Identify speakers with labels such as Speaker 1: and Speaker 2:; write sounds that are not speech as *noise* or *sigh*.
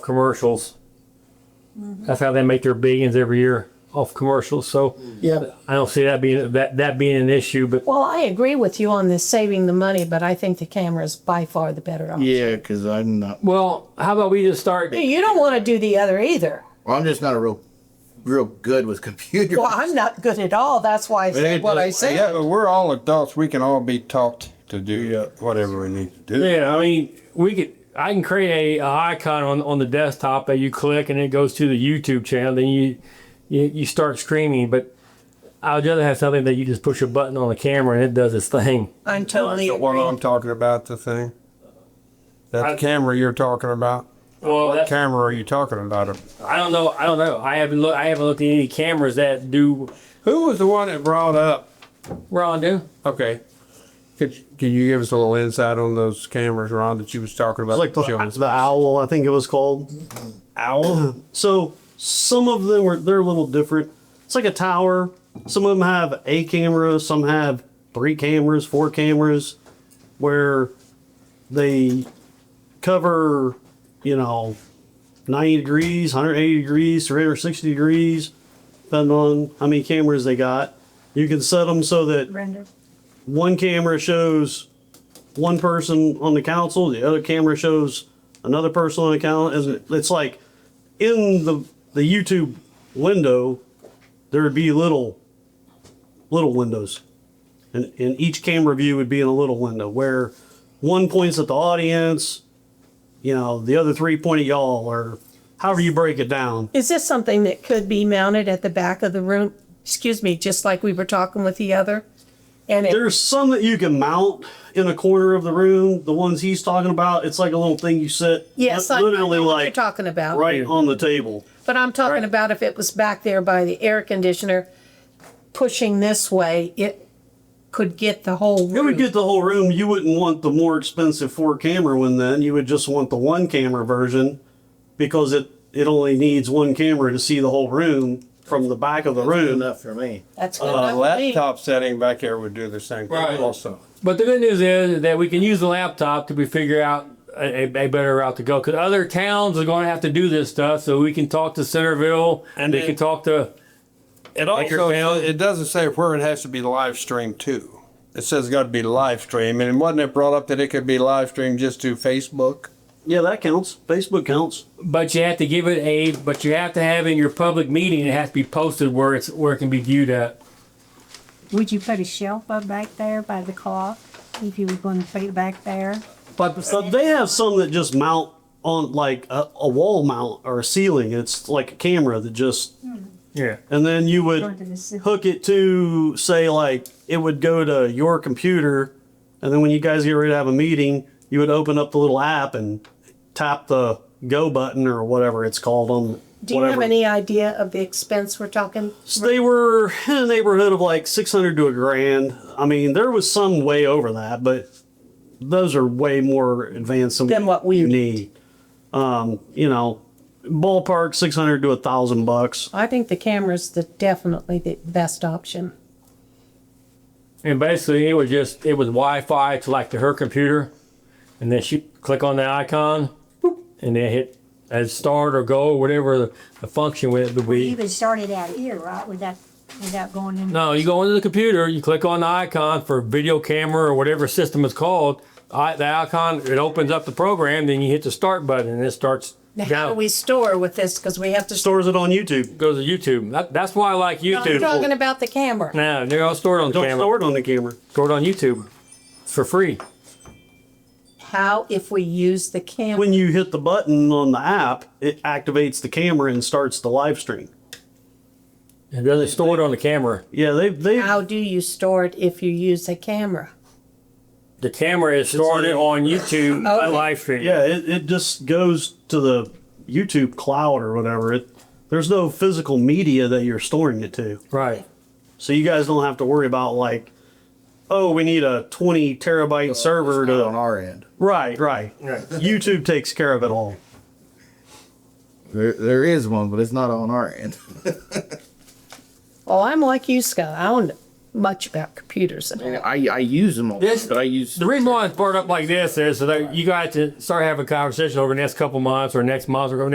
Speaker 1: commercials. That's how they make their billions every year off commercials. So
Speaker 2: Yeah,
Speaker 1: I don't see that being that that being an issue. But
Speaker 3: Well, I agree with you on this saving the money, but I think the camera is by far the better option.
Speaker 2: yeah, because I'm not.
Speaker 1: well, how about we just start?
Speaker 3: You don't want to do the other either.
Speaker 2: Well, I'm just not a real, real good with *laughs* computers.
Speaker 3: Well, I'm not good at all. That's why I said what I said.
Speaker 4: Yeah, but we're all adults. We can all be taught to do whatever we need to do.
Speaker 1: Yeah, I mean, we could. I can create a, a icon on, on the desktop that you click and it goes to the YouTube channel. Then you you, you start streaming. But I'd rather have something that you just push a button on the camera and it does its thing.
Speaker 3: I'm totally
Speaker 4: The one I'm
Speaker 3: agreeing.
Speaker 4: talking about, the thing.
Speaker 1: I-
Speaker 4: That camera you're talking about.
Speaker 1: Well,
Speaker 4: What camera are you talking about?
Speaker 1: I don't know. I don't know. I haven't looked. I haven't looked at any cameras that do.
Speaker 4: Who was the one that brought up?
Speaker 1: Ron, do
Speaker 4: Okay. Could, can you give us a little insight on those cameras, Ron, that you was talking about?
Speaker 5: like the,
Speaker 4: Jones?
Speaker 5: the owl i think it was called owl so some of them were they're a little different it's like a tower some of them have a camera some have three cameras four cameras where they cover you know 90 degrees 180 degrees 360 degrees depending on how many cameras they got you can set them so that
Speaker 3: Brenda.
Speaker 5: one camera shows one person on the council, the other camera shows another person on the council. It's- It's like in the the YouTube window, there would be little little windows, and and each camera view would be in a little window where one points at the audience, you know, the other three point at y'all, or however you break it down.
Speaker 3: Is this something that could be mounted at the back of the room? Excuse me, just like we were talking with the other? And it,
Speaker 5: There's some that you can mount in a corner of the room. The ones he's talking about, it's like a little thing you set.
Speaker 3: yes, I I know
Speaker 5: literally
Speaker 3: what you're
Speaker 5: like
Speaker 3: talking about.
Speaker 5: right on the table.
Speaker 3: But I'm talking about if it was back there by the air conditioner, pushing this way, it could get the whole
Speaker 5: It would
Speaker 3: room.
Speaker 5: get the whole room. You wouldn't want the more expensive four camera one then. You would just want the one camera version because it, it only needs one camera to see the whole room from the back of the room.
Speaker 2: enough for me.
Speaker 3: That's
Speaker 4: A
Speaker 3: what I believe.
Speaker 4: laptop setting back there would do the same thing
Speaker 1: Right.
Speaker 4: also.
Speaker 1: But the good news is that we can use the laptop to be figure out a, a a better route to go because other towns are going to have to do this stuff. So we can talk to Centerville and they
Speaker 4: then-
Speaker 1: can talk to.
Speaker 4: It also, it doesn't say where it has to be live streamed to. It says it's got to be live stream, and wasn't it brought up that it could be live streamed just to Facebook?
Speaker 5: Yeah, that counts. Facebook counts.
Speaker 1: But you have to give it a. But you have to have in your public meeting. It has to be posted where it's where it can be viewed at.
Speaker 6: Would you put a shelf up back there by the clock if you were going to put it back there?
Speaker 5: But, but they have some that just mount on like a, a wall mount or a ceiling. It's like a camera that just
Speaker 1: Yeah.
Speaker 5: and then you
Speaker 6: Going to the
Speaker 5: would
Speaker 6: ci-
Speaker 5: hook it to say like it would go to your computer and then when you guys get ready to have a meeting you would open up the little app and tap the go button or whatever it's called on
Speaker 3: Do you
Speaker 5: whatever.
Speaker 3: have any idea of the expense we're talking?
Speaker 5: So they were in the neighborhood of like 600 to a grand i mean there was some way over that but those are way more advanced than,
Speaker 3: Than what we
Speaker 5: you need um you know ballpark 600 to a thousand bucks
Speaker 3: I think the camera's the definitely the best option.
Speaker 1: And basically, it was just it was Wi-Fi to like to her computer, and then she click on the icon, boop, and then hit as start or go whatever the, the function with it would be.
Speaker 6: You could start it out here, right, without, without going in?
Speaker 1: No, you go into the computer, you click on the icon for video camera or whatever system it's called. I, the icon, it opens up the program, then you hit the start button and it starts
Speaker 3: Now, how do
Speaker 1: down.
Speaker 3: we store with this? Because we have to.
Speaker 5: stores it on youtube
Speaker 1: goes to YouTube. That, that's why I like
Speaker 3: I'm
Speaker 1: YouTube.
Speaker 3: talking about the camera.
Speaker 1: No, they're all stored on the
Speaker 5: Don't
Speaker 1: camera.
Speaker 5: store it on the camera.
Speaker 1: Stored on YouTube. It's for free.
Speaker 3: How if we use the camera?
Speaker 5: When you hit the button on the app, it activates the camera and starts the live stream.
Speaker 1: It doesn't store it on the camera.
Speaker 5: Yeah, they they
Speaker 3: how do you store it if you use a camera?
Speaker 1: The camera is storing it on YouTube
Speaker 3: *laughs* Okay.
Speaker 1: live stream.
Speaker 5: yeah it, it just goes to the YouTube cloud or whatever. It there's no physical media that you're storing it to,
Speaker 1: Right.
Speaker 5: so you guys don't have to worry about like, oh, we need a 20 terabyte server
Speaker 2: Not on
Speaker 5: to
Speaker 2: our end.
Speaker 5: right right. YouTube takes care of it all.
Speaker 2: There, there is one, but it's not on our end.
Speaker 3: Well, I'm like you, Scott. I don't know much about computers.
Speaker 2: I, I use them all,
Speaker 1: This-
Speaker 2: but I use
Speaker 1: The reason why it's brought up like this is so that you guys to start having a conversation over the next couple months or next month or